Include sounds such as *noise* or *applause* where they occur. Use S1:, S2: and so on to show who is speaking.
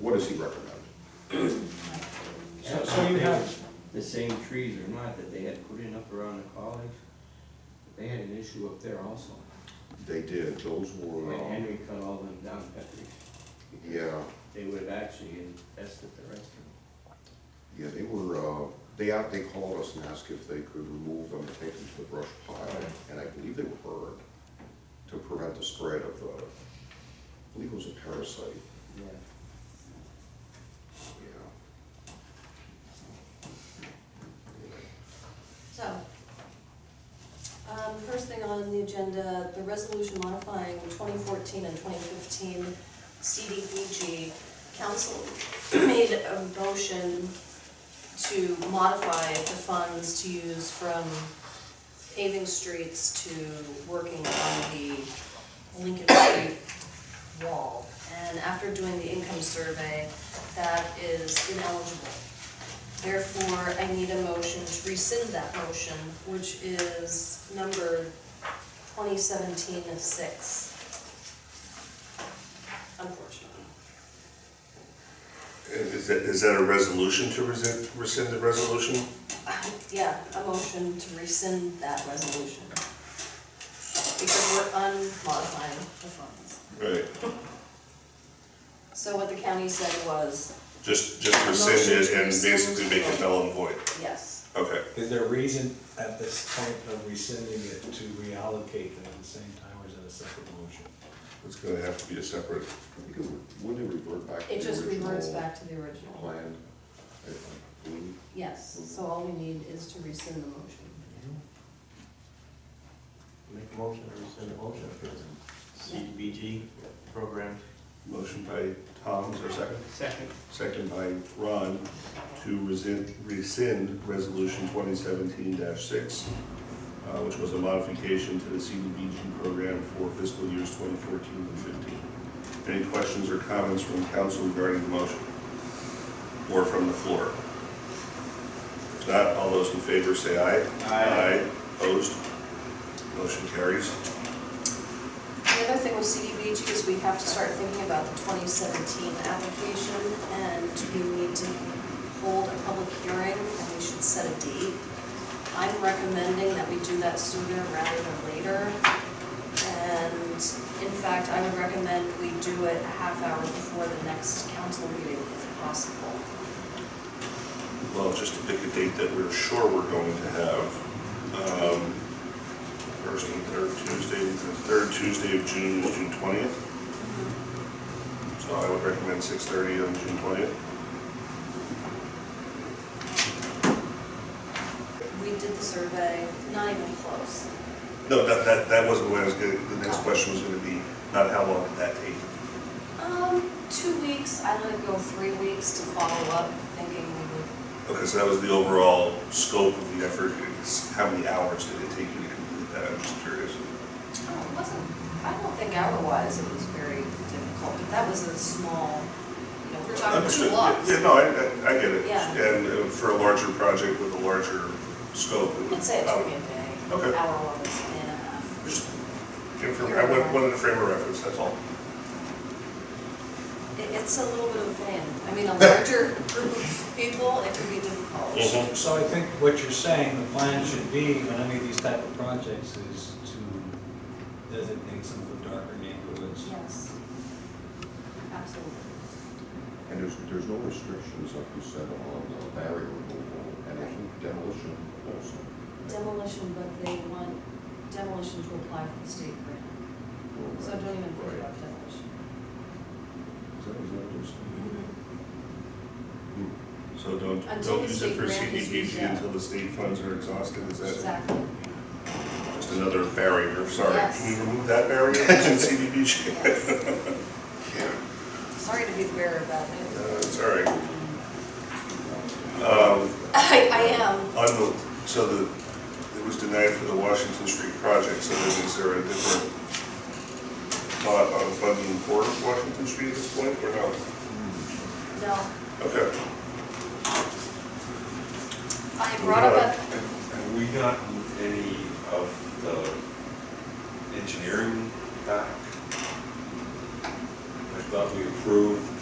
S1: What does he recommend?
S2: So, so you have,
S3: The same trees or not that they had put in up around the college, they had an issue up there also.
S1: They did, those were,
S3: When
S1: um,
S3: Henry cut all them down, Petri.
S1: yeah,
S3: They would have actually infested the rest of
S1: yeah, they were, uh, they, out- they called us and asked if they could remove them and take them to the brush pile, and I believe they were burned to prevent the spread of the, I believe it was a parasite,
S3: them. Yeah.
S1: yeah.
S4: So, um, first thing on the agenda, the resolution modifying twenty fourteen and twenty fifteen CDBG. Council *clears throat* made a motion to modify the funds to use from paving streets to working on the Lincoln Street wall. And after doing the income survey, that is ineligible. Therefore, I need a motion to rescind that motion, which is number twenty seventeen of six. Unfortunately. *laughs*
S5: Is that, is that a resolution to rescind, rescind the resolution?
S4: Yeah, a motion to rescind that resolution. Because we're unmodifying the funds.
S5: Right.
S4: So what the county said was,
S5: Just, just rescind it
S4: Motion to
S5: and basically
S4: rescind.
S5: make it null and void.
S4: yes,
S5: Okay.
S2: is there a reason at this point of rescinding it to reallocate it at the same time or is it a separate motion?
S5: It's gonna have to be a separate.
S1: I think it would, wouldn't it revert back to the
S4: it
S1: original?
S4: just reverts back to the original.
S1: Plan, I I believe.
S4: Yes, so all we need is to rescind the motion.
S6: Make a motion to rescind the motion for the CDBG program.
S5: Motion by Tom, is there a second?
S3: Second,
S5: Second by Ron to rescind, rescind resolution twenty seventeen six, uh, which was a modification to the CDBG program for fiscal years twenty fourteen and fifteen. Any questions or comments from council regarding the motion? Or from the floor? If not, all those in favor say aye.
S6: Aye.
S5: Opposed? Motion carries.
S4: The other thing with CDBG is we have to start thinking about the 2017 application, and we need to hold a public hearing, and we should set a date. I'm recommending that we do that sooner rather than later, and in fact, I would recommend we do it a half hour before the next council meeting if possible.
S5: Well, just to pick a date that we're sure we're going to have, um, first and third Tuesday, the third Tuesday of June is June twentieth. So I would recommend six thirty on June twentieth.
S4: We did the survey, not even close.
S5: No, that, that, that wasn't what I was gonna, the next question was gonna be, not how long did that take?
S4: Um, two weeks, I let it go three weeks to follow up, thinking we would
S5: Okay, so that was the overall scope of the effort, it's how many hours did it take you to complete that, I'm just curious.
S4: Oh, it wasn't, I don't think hour-wise it was very difficult, but that was a small, you know, we're talking two
S5: Understood.
S4: lots.
S5: Yeah, no, I, I- I get it.
S4: Yeah.
S5: And uh, for a larger project with a larger scope, it would.
S4: I'd say it took me a
S5: Okay.
S4: day, hour-wise, day and a half.
S5: Just, give for- I wa- wanted to frame a reference, that's all.
S4: It, it's a little bit of a pain, I mean, a larger group of people, it could be difficult.
S5: Mhm.
S2: So I think what you're saying, the plan should be on any of these type of projects is to designate some of the darker neighborhoods.
S4: Yes, absolutely.
S1: And there's, there's no restrictions, like you said, on uh, barrier removal, and I think demolition also.
S4: Demolition, but they want demolition to apply for the state grant, so don't even worry about demolition.
S1: Is that what those?
S5: Mm-hmm. So don't,
S4: Until
S5: don't
S4: the
S5: use it
S4: state
S5: for
S4: grant is used
S5: CDBG
S4: up.
S5: until the state funds are exhausted, is that
S4: Exactly,
S5: just another barrier? Sorry,
S4: Yes.
S5: can we remove that barrier in CDBG?
S4: yes.
S5: Yeah.
S4: Sorry to be the bearer of bad news.
S5: *laughs*
S4: *laughs*
S5: Uh, It's all right. Um,
S4: I, I am.
S5: On the, so the, it was denied for the Washington Street project, so then is there a different thought on funding for Washington Street at this point, or no?
S4: No,
S5: Okay.
S4: I brought up a,
S7: Have we gotten any of the engineering back? I thought we approved